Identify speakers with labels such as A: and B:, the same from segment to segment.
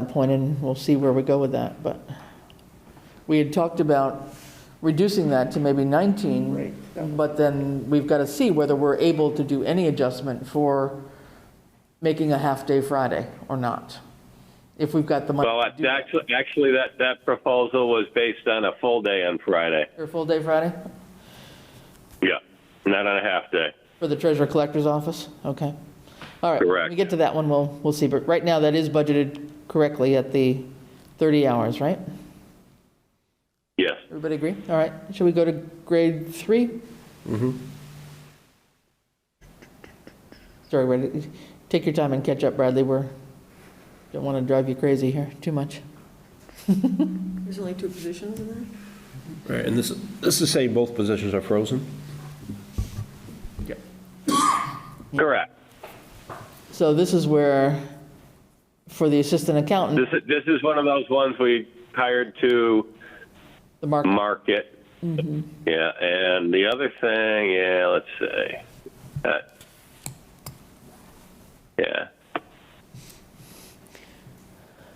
A: that point, and we'll see where we go with that, but we had talked about reducing that to maybe 19.
B: Right.
A: But then we've got to see whether we're able to do any adjustment for making a half-day Friday or not, if we've got the money.
C: Well,
A: to do
C: that's actually, actually, that, that proposal was based on a full day on Friday.
A: that. Or full-day Friday
C: Yeah, not on a half day.
A: for the treasurer collector's office? Okay. All right. When
C: Correct.
A: we get to that one, we'll, we'll see, but right now, that is budgeted correctly at the 30 hours, right?
C: Yes.
A: Everybody agree? All right, should we go to grade three? Sorry, wait, take your time and catch up, Bradley, we're, don't want to drive you crazy here, too much.
B: There's only two positions in there?
D: Right, and this, this is saying both positions are frozen?
C: Correct.
A: So this is where, for the assistant accountant,
C: This, is- this is one of those ones we hired to
A: the mark,
C: market. Yeah, and the other thing, yeah, let's see. Uh, Yeah,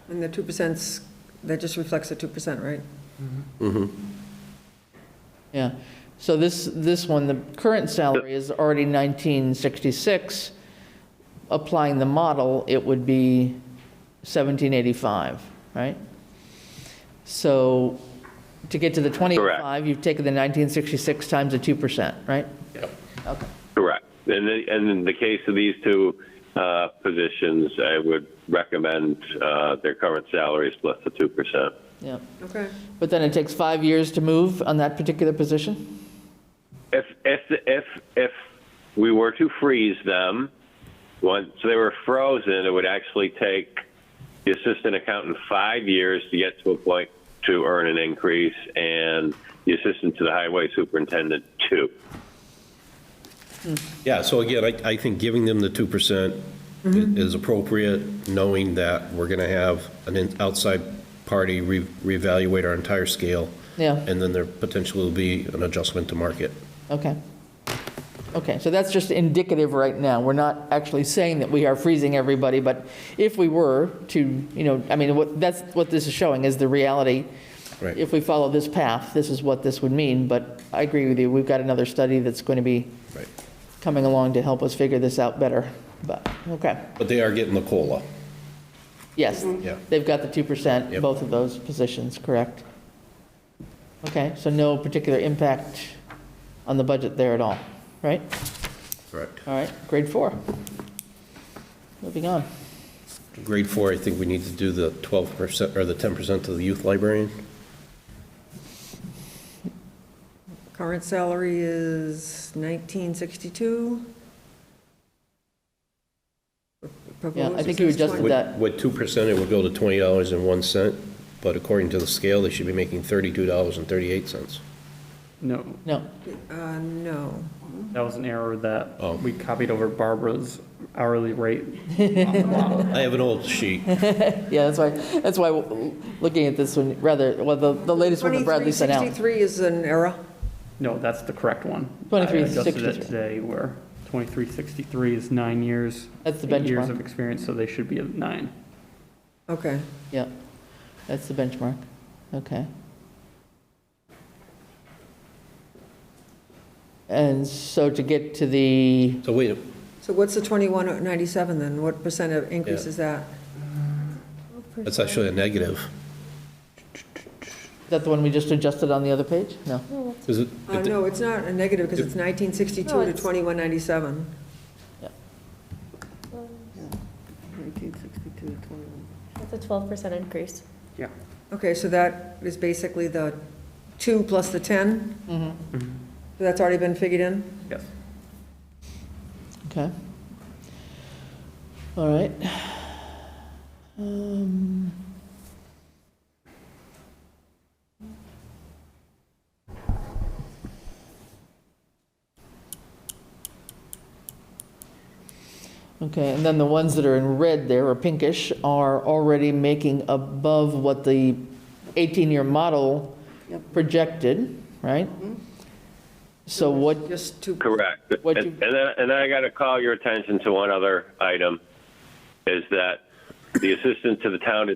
B: And the two percent's, that just reflects the two percent, right?
A: yeah. So this, this one, the current salary is already 1966. Applying the model, it would be 1785, right? So to get to the 25, you've taken the 1966 times the 2%, right?
C: correct. And, the- and in the case of these two uh, positions, I would recommend uh, their current salaries plus the 2%.
A: Yeah.
B: Okay.
A: But then it takes five years to move on that particular position?
C: If if if if we were to freeze them, once they were frozen, it would actually take the assistant accountant five years to get to a point to earn an increase, and the assistant to the highway superintendent two.
D: Yeah, so again, I, I think giving them the 2% i- is appropriate, knowing that we're going to have an in- outside party re- reevaluate our entire scale,
A: Yeah,
D: and then there potentially will be an adjustment to market.
A: okay. Okay, so that's just indicative right now. We're not actually saying that we are freezing everybody, but if we were to, you know, I mean, what, that's what this is showing is the reality.
D: Right.
A: If we follow this path, this is what this would mean, but I agree with you. We've got another study that's going to be
D: Right.
A: coming along to help us figure this out better, but, okay.
D: But they are getting the COLA.
A: Yes.
D: Yeah.
A: They've got the 2%,
D: Yep.
A: both of those positions, correct? Okay, so no particular impact on the budget there at all, right?
D: Correct.
A: All right, grade four. Moving on.
D: Grade four, I think we need to do the 12% or the 10% to the youth librarian.
B: Current salary is nineteen sixty-two.
A: Yeah, I think you adjusted
D: With,
A: that.
D: with 2%, it would go to $20.01, but according to the scale, they should be making $32.38.
E: No,
A: No,
B: Uh, no.
E: that was an error
D: Oh.
E: that we copied over Barbara's hourly rate.
D: I have an old sheet.
A: yeah, that's why, that's why, looking at this one, rather, well, the, the latest one that Bradley sent out.
B: 2363 is an error.
E: No, that's the correct one.
A: 2363.
E: I adjusted it today where 2363 is nine years.
A: That's the
E: eight Years
A: benchmark.
E: of experience, so they should be at nine.
B: Okay.
A: Yeah, that's the benchmark, okay. And so to get to the,
D: So wait,
B: So what's the twenty-one oh ninety-seven then? What percent of increase
D: Yeah.
B: is that?
D: that's actually a negative.
A: is that the one we just adjusted on the other page? No.
D: Is it?
B: Uh, no, it's not a negative because it's nineteen
F: No,
B: sixty-two to
F: it's-
B: twenty-one ninety-seven.
G: 1962 to 21.
F: That's a twelve percent increase.
E: Yeah.
B: Okay, so that is basically the two plus the ten? So That's already been figured in?
E: Yes.
A: Okay. All right. Um, Okay, and then the ones that are in red there, or pinkish, are already making above what the 18-year model
G: Yep.
A: projected, right? So what,
B: Mm-hmm. Just two.
C: Correct.
A: What
C: And,
A: you-
C: and then, and then I got to call your attention to one other item, is that the assistant to the town